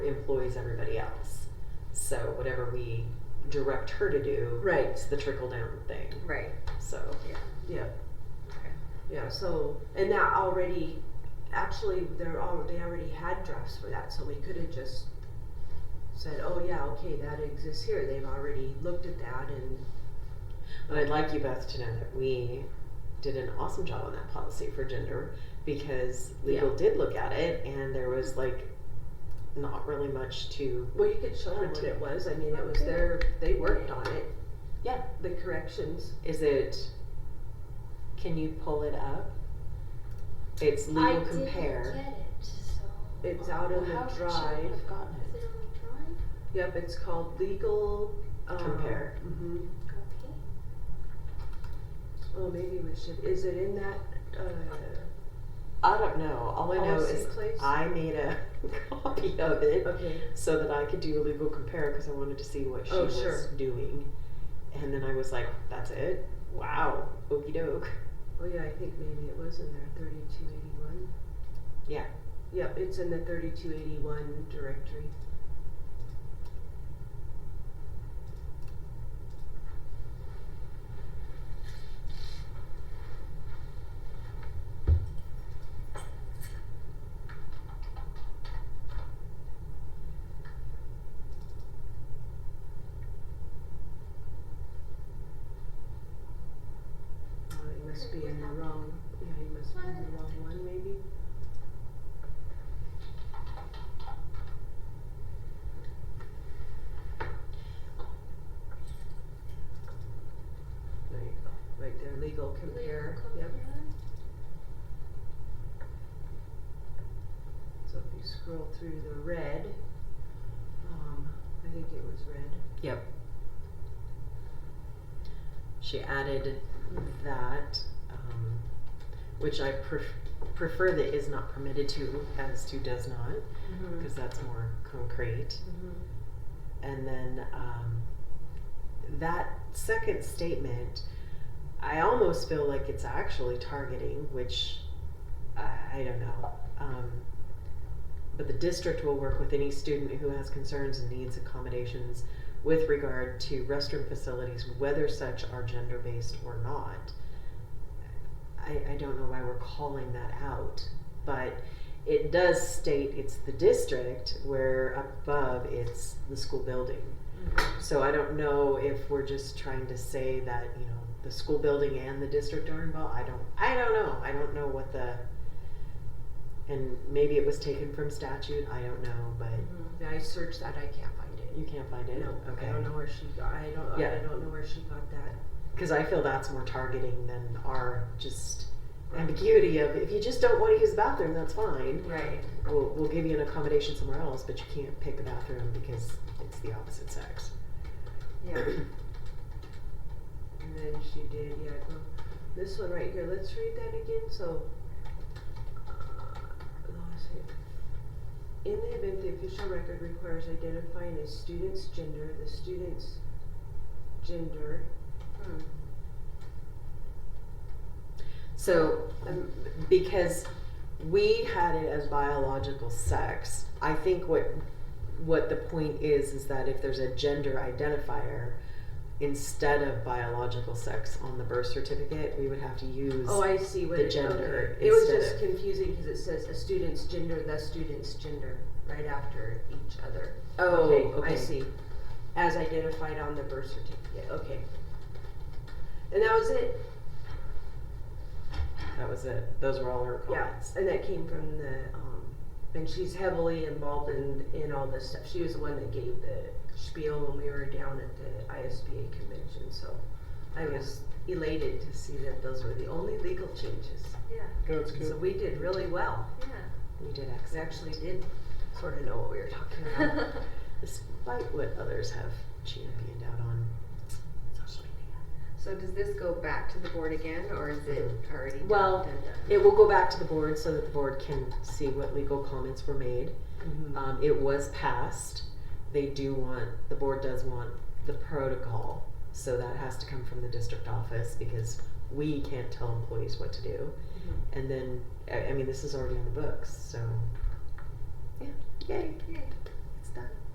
employs everybody else. So whatever we direct her to do, Right. it's the trickle down thing. Right. So Yeah. Okay. Yeah, so, and that already, actually, they're all, they already had drafts for that, so we could have just said, oh yeah, okay, that exists here, they've already looked at that and, But I'd like you both to know that we did an awesome job on that policy for gender because legal did look at it and there was like not really much to well, you could show them what it was, I mean, it was their, they worked on it. Yeah. The corrections, is it can you pull it up? It's I legal compare. didn't get it, so. it's out Well, on how the should she drive, have gotten Is it on yep, it's called legal, um. Compare. hmm the drive? Okay. oh, maybe we should, is it in that, uh, I don't know. All I know policy is place? I made a copy of it Okay, so that I could do a legal compare because I wanted to see what she Oh, was sure. doing. And then I was like, that's it? Wow. Okey doke. oh yeah, I think maybe it was in there, thirty-two eighty-one. Yeah. Yep, it's in the thirty-two eighty-one directory. Uh, it must be in the wrong, yeah, you must be in the wrong one maybe. There you go, right there, legal compare, Legal yep, compare. so if you scroll through the red, um, I think it was red. She added that, um, which I pref- prefer that is not permitted to as to does not Mm-hmm. because that's more concrete. And then um, that second statement, I almost feel like it's actually targeting, which I, I don't know. Um, but the district will work with any student who has concerns and needs accommodations with regard to restroom facilities, whether such are gender based or not. I, I don't know why we're calling that out, but it does state it's the district where up above it's the school building. Mm-hmm. So I don't know if we're just trying to say that, you know, the school building and the district are involved. I don't, I don't know. I don't know what the, and maybe it was taken from statute. I don't know, but Yeah, I searched that, I can't find it. Mm-hmm. you can't find it. No, okay. I don't know where she got, I don't, I Yeah. don't know where she got that. Because I feel that's more targeting than our just ambiguity of if you just don't want to use the bathroom, that's fine. Right. We'll, we'll give you an accommodation somewhere else, but you can't pick a bathroom because it's the opposite sex. Yeah. And then she did, yeah, go, this one right here, let's read that again, so. uh, let's see. In the event the official record requires identifying a student's gender, the student's gender, Hmm. So, um, because we had it as biological sex, I think what what the point is is that if there's a gender identifier instead of biological sex on the birth certificate, we would have to use. oh, I see what the it, gender okay. It was instead just of- confusing, cause it says a student's gender, the student's gender, right after each other. Oh, I see. As identified on the birth certificate, okay. And that was it, That was it. Those were all her Yeah, comments. and that came from the, um, and she's heavily involved in, in all this stuff. She was the one that gave the spiel when we were down at the ISBA convention, so I was elated to see that those were the only legal changes. Yeah. That's So we did really well. Yeah. We did We accept, actually did sort of know what we were talking about. despite what others have championed out on social media. so does this go back to the board again, or is it already done, Well, done, done? It will go back to the board so that the board can see what legal comments were made. Mm-hmm. Um, it was passed. They do want, the board does want the protocol. So that has to come from the district office because we can't tell employees what to do. Mm-hmm. And then, I, I mean, this is already on the books, so. Yeah, yay. Yay.